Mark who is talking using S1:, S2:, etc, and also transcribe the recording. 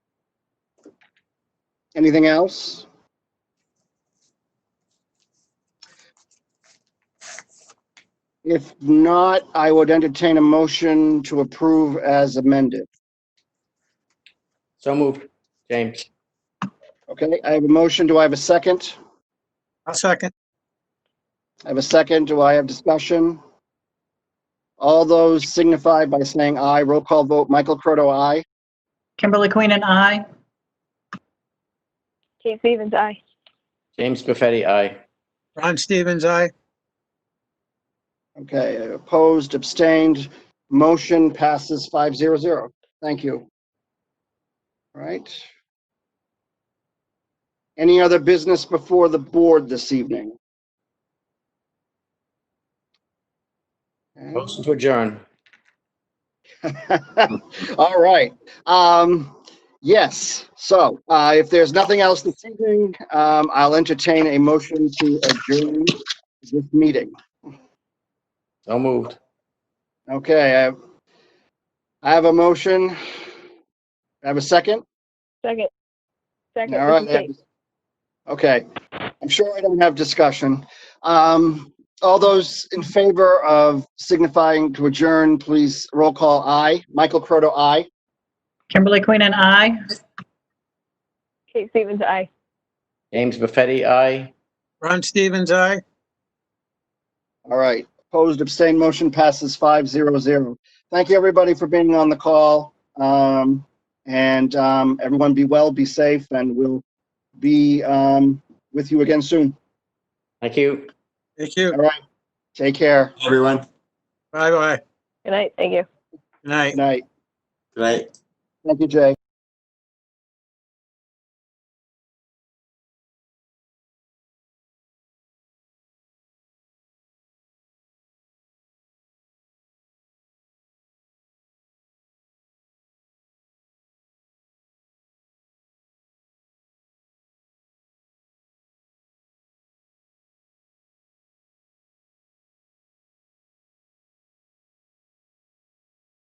S1: Anything else? If not, I would entertain a motion to approve as amended.
S2: So moved. James.
S1: Okay, I have a motion. Do I have a second?
S3: I'll second.
S1: I have a second. Do I have discussion? All those signify by saying aye. Roll call vote. Michael Croto, aye.
S4: Kimberly Queen and I.
S5: Kate Stevens, aye.
S2: James Buffetti, aye.
S3: Ron Stevens, aye.
S1: Okay, opposed, abstained, motion passes five zero zero. Thank you. All right. Any other business before the board this evening?
S2: Motion to adjourn.
S1: All right. Um, yes, so, uh, if there's nothing else this evening, um, I'll entertain a motion to adjourn this meeting.
S2: So moved.
S1: Okay, I have, I have a motion. I have a second?
S5: Second. Second.
S1: All
S5: this
S1: right.
S5: is
S1: I have-
S5: Kate.
S1: Okay, I'm sure I don't have discussion. Um, all those in favor of signifying to adjourn, please roll call aye. Michael Croto, aye.
S4: Kimberly Queen and I.
S5: Kate Stevens, aye.
S2: James Buffetti, aye.
S3: Ron Stevens, aye.
S1: All right, opposed, abstained, motion passes five zero zero. Thank you, everybody, for being on the call. Um, and, um, everyone be well, be safe, and we'll be, um, with you again soon.
S2: Thank you.
S3: Thank you.
S1: Take care.
S6: everyone.
S3: Bye-bye.
S5: Good night. Thank you.
S3: Good night.
S1: Good night.
S6: Good night.
S1: Thank you, Jay.